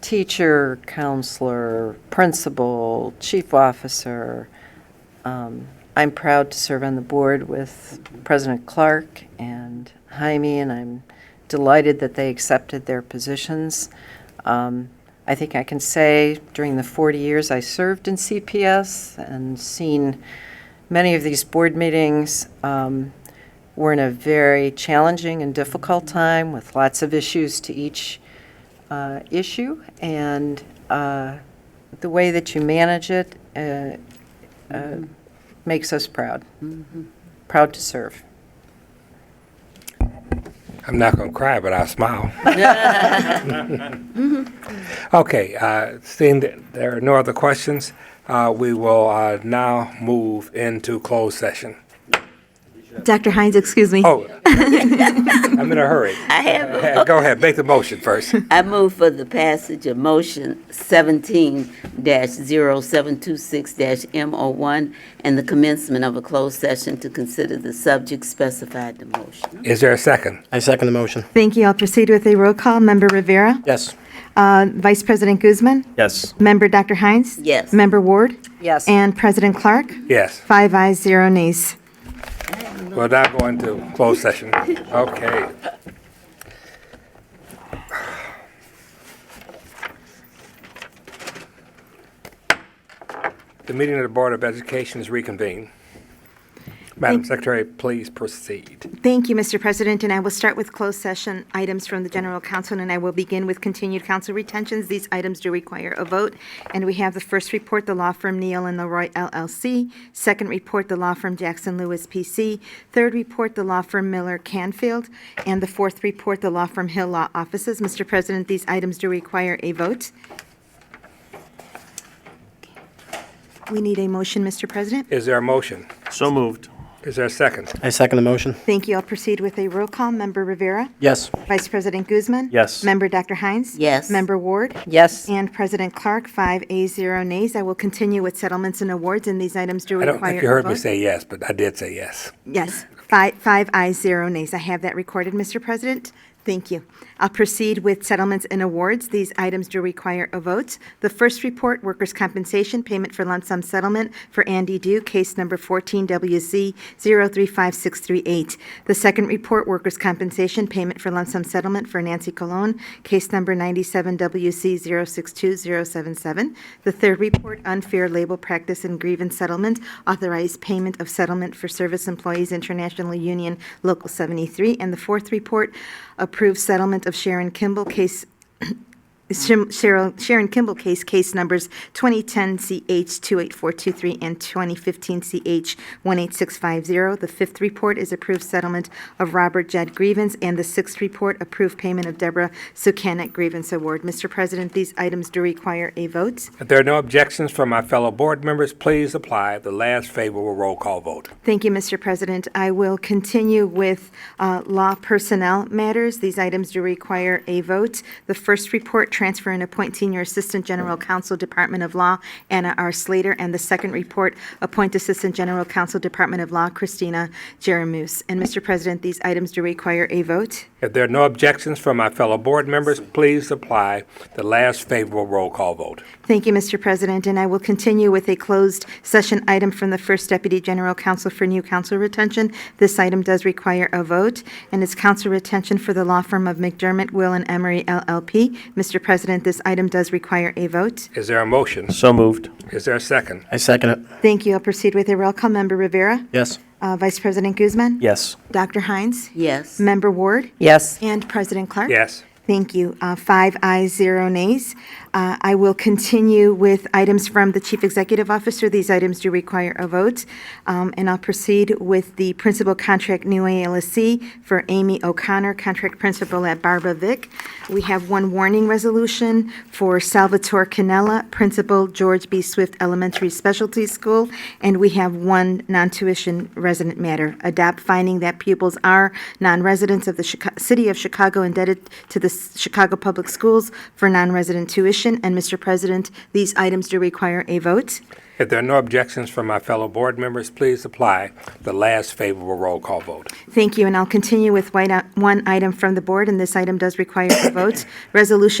teacher, counselor, principal, chief officer. Um, I'm proud to serve on the board with President Clark and Jaime, and I'm delighted that they accepted their positions. Um, I think I can say during the 40 years I served in CPS and seen many of these board meetings, um, we're in a very challenging and difficult time with lots of issues to each uh, issue. And uh, the way that you manage it uh, uh, makes us proud, proud to serve. I'm not going to cry, but I'll smile. Okay, uh, seeing that there are no other questions, uh, we will uh, now move into closed session. Dr. Hines, excuse me. Oh, I'm in a hurry. I have, Uh, Go ahead, make the motion first. I move for the passage of motion seventeen 726 M O one and the commencement of a closed session to consider the subject specified in the motion. Is there a second? I second the motion. Thank you. I'll proceed with a roll call. Member Rivera. Yes. Uh, Vice President Guzman. Yes. Member Dr. Hines. Yes. Member Ward. Yes. And President Clark. Yes, Five ayes, zero nays. we're now going to closed session. Okay. The meeting of the Board of Education is reconvened. Madam Secretary, please proceed. Thank you, Mr. President, and I will start with closed session items from the General Counsel, and I will begin with continued counsel retentions. These items do require a vote, and we have the first report, the law firm Neal and Leroy LLC. Second report, the law firm Jackson Lewis PC. Third report, the law firm Miller Canfield. And the fourth report, the law firm Hill Law Offices. Mr. President, these items do require a vote. We need a motion, Mr. President. Is there a motion? So moved. Is there a second? I second the motion. Thank you. I'll proceed with a roll call. Member Rivera? Yes. Vice President Guzman? Yes. Member Dr. Hines? Yes. Member Ward? Yes. And President Clark, five A, zero nays. I will continue with settlements and awards, and these items do I require. don't think you a heard me vote. say yes, but I did say yes. Yes, five, five ayes, zero nays. I have that recorded, Mr. President. Thank you. I'll proceed with settlements and awards. These items do require a vote. The first report, workers' compensation payment for lump sum settlement for Andy Dew, case number 14WZ 035638. The second report, workers' compensation payment for lump sum settlement for Nancy Cologne, case number 97WC 062077. The third report, unfair label practice and grievance settlement, authorized payment of settlement for Service Employees International Union Local 73. And the fourth report, approved settlement of Sharon Kimball, case Shim- Cheryl- Sharon Kimball case, case numbers 2010CH28423 and 2015CH18650. The fifth report is approved settlement of Robert Jed grievance, and the sixth report, approved payment of Deborah Sukanic grievance award. Mr. President, these items do require a vote. If there are no objections from my fellow board members, please apply the last favorable roll call vote. Thank you, Mr. President. I will continue with uh, law personnel matters. These items do require a vote. The first report, transfer and appoint senior assistant general counsel, Department of Law, Anna R. Slater, and the second report, appoint assistant general counsel, Department of Law, Christina Jaramus. And, Mr. President, these items do require a vote. If there are no objections from my fellow board members, please apply the last favorable roll call vote. Thank you, Mr. President, and I will continue with a closed session item from the First Deputy General Counsel for new counsel retention. This item does require a vote, and it's counsel retention for the law firm of McDermott, Will, and Emery LLP. Mr. President, this item does require a vote. Is there a motion? So moved. Is there a second? I second it. Thank you. I'll proceed with a roll call. Member Rivera? Yes. Uh, Vice President Guzman? Yes. Dr. Hines? Yes. Member Ward? Yes. And President Clark? Yes. Thank you. Uh, Five ayes, zero nays. Uh, I will continue with items from the Chief Executive Officer. These items do require a vote. Um, And I'll proceed with the principal contract new ALSC for Amy O'Connor, contract principal at Barbara Vick. We have one warning resolution for Salvatore Canella, principal George B. Swift Elementary Specialty School. And we have one non-tuition resident matter, adopt finding that pupils are non-residents of the Chica- City of Chicago indebted to the S- Chicago Public Schools for non-resident tuition. And Mr. President, these items do require a vote. If there are no objections from my fellow board members, please apply the last favorable roll call vote. Thank you, and I'll continue with white- one item from the board, and this item does require a vote. Resolution